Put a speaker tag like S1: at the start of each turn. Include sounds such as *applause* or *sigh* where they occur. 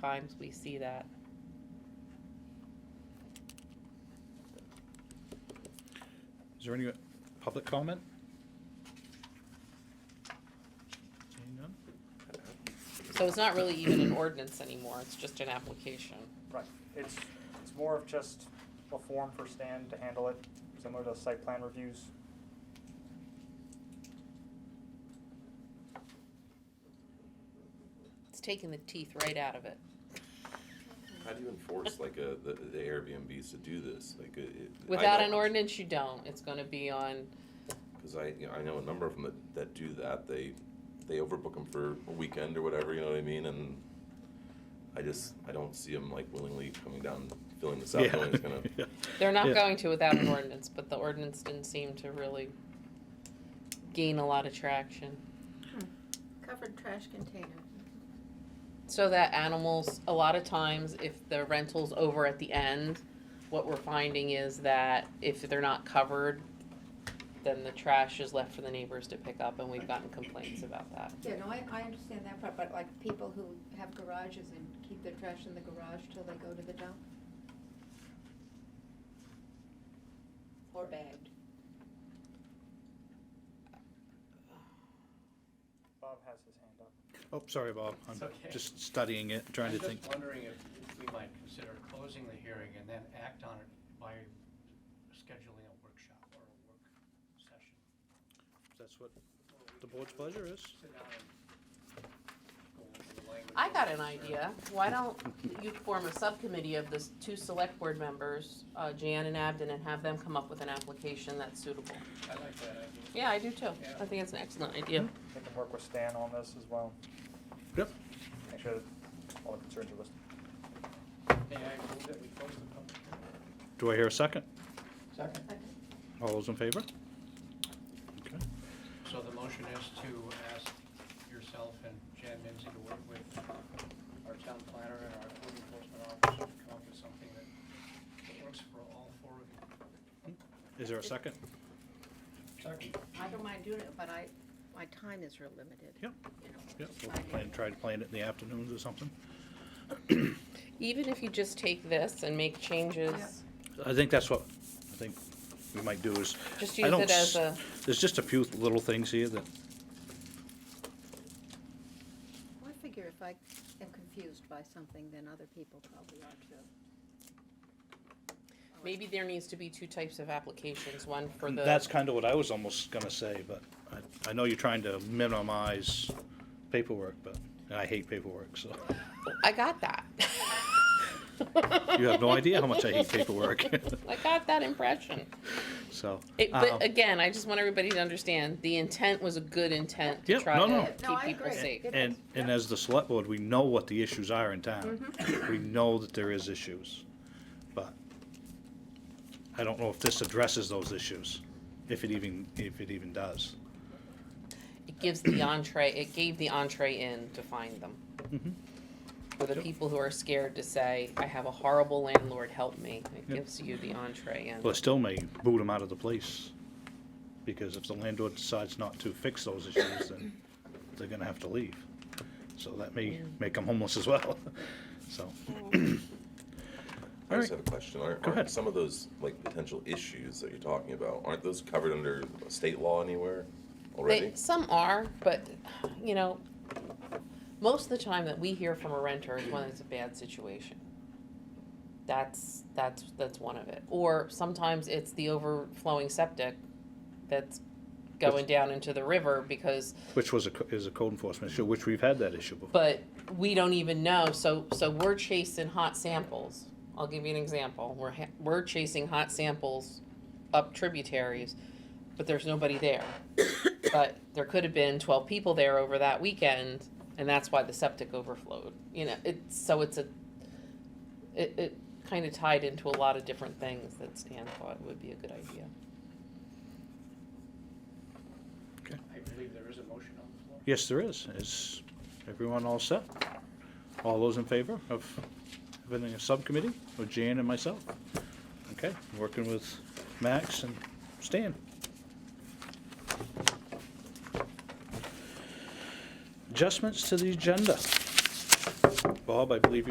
S1: times we see that.
S2: Is there any public comment? Seeing none?
S1: So it's not really even an ordinance anymore, it's just an application.
S3: Right, it's, it's more of just a form for Stan to handle it, similar to site plan reviews.
S1: It's taking the teeth right out of it.
S4: How do you enforce like a, the, the Airbnbs to do this? Like it- it. I
S1: Without
S4: know-
S1: an ordinance, you don't, it's gonna be on,
S4: Cause I, you know, I know a number of them that, that do that. They, they overbook them for a weekend or whatever, you know what I mean? And I just, I don't see them like willingly coming down, filling this out,
S2: Yeah.
S4: knowing
S2: *laughs*
S4: it's gonna.
S2: Yeah.
S1: they're
S2: Yeah.
S1: not going to without an ordinance, but the ordinance didn't seem to really gain a lot of traction.
S5: Hmm. Covered trash container.
S1: So that animals, a lot of times, if the rental's over at the end, what we're finding is that if they're not covered, then the trash is left for the neighbors to pick up, and we've gotten complaints about that.
S6: Yeah, no, I, I understand that part, but like people who have garages and keep their trash in the garage till they go to the dump? Or bagged?
S3: Bob has his hand up.
S2: Oh, sorry, Bob. I'm
S7: It's okay.
S2: just studying it, trying to think.
S7: I'm just wondering if if we might consider closing the hearing and then act on it by scheduling a workshop or a work session.
S2: That's what the board's pleasure is.
S7: Sit down and go over the language
S1: I
S7: of
S1: got
S7: the
S1: an
S7: concern.
S1: idea. Why don't you form a subcommittee of the two select board members, uh, Jan and Abden, and have them come up with an application that's suitable?
S7: I like that idea.
S1: Yeah, I do too. I
S7: Yeah.
S1: think it's an excellent idea.
S3: We can work with Stan on this as well,
S2: Yep.
S3: make sure that all the concerns are listed.
S7: May I move that we close the public hearing?
S2: Do I hear a second?
S7: Second.
S2: All those in favor? Okay.
S7: So the motion is to ask yourself and Jan Minzy to work with our town planner and our code enforcement officer to come up with something that that works for all four of you.
S2: Is there a second?
S7: Second.
S5: I don't mind doing it, but I, my time is real limited.
S2: Yep.
S5: you know,
S2: Yep, we'll
S5: I-
S2: plan, try to plan it in the afternoons or something.
S1: Even if you just take this and make changes,
S2: I think that's what, I think we might do is.
S1: Just
S2: I
S1: use
S2: don't
S1: it as
S2: s-
S1: a-
S2: There's just a few little things here that,
S6: I figure if I am confused by something, then other people probably are too.
S1: maybe there needs to be two types of applications, one for the.
S2: that's kind of what I was almost gonna say, but I, I know you're trying to minimize paperwork, but, and I hate paperwork, so.
S1: I got that. *laughs*
S2: You have no idea how much I hate paperwork, *laughs*
S1: I got that impression.
S2: so.
S1: It,
S2: um,
S1: but again, I just want everybody to understand, the intent was a good intent to
S2: Yep,
S1: try
S2: no, no.
S1: to
S6: No,
S1: keep
S6: I
S1: people
S6: agree.
S1: safe.
S6: It
S2: And,
S6: is,
S2: and
S6: yeah.
S2: as the select board, we know what the issues are in town. We know that there is issues, but I don't know if this addresses those issues, if it even, if it even does.
S1: It gives the entree, it gave the entree in to find them. For the
S2: Mm-hmm. Yep.
S1: people who are scared to say, I have a horrible landlord, help me, it
S2: Yep.
S1: gives you the entree in.
S2: Well, it still may boot them out of the place, because if the landlord decides not to fix those issues, then they're gonna have to leave. So that may make them homeless as well, *laughs* so.
S4: I
S2: All
S4: just
S2: right,
S4: have a question. Aren't,
S2: Go ahead.
S4: aren't some of those like potential issues that you're talking about, aren't those covered under state law anywhere already?
S1: They, some are, but, you know, most of the time that we hear from a renter is when it's a bad situation. That's, that's, that's one of it. Or sometimes it's the overflowing septic that's going down into the river because,
S2: which was a, co- is a code enforcement issue, which we've had that issue before.
S1: but we don't even know, so, so we're chasing hot samples. I'll give you an example. We're, ha- we're chasing hot samples up tributaries, but there's nobody there. but there could have been twelve people there over that weekend, and that's why the septic overflowed. You know, it's so it's a, it, it kind of tied into a lot of different things that Stan thought would be a good idea.
S7: I believe there is a motion on the floor.
S2: Yes, there is. Is everyone all set? All those in favor of having a subcommittee with Jan and myself? Okay, working with Max and Stan. Adjustments to the agenda. Bob, I believe you.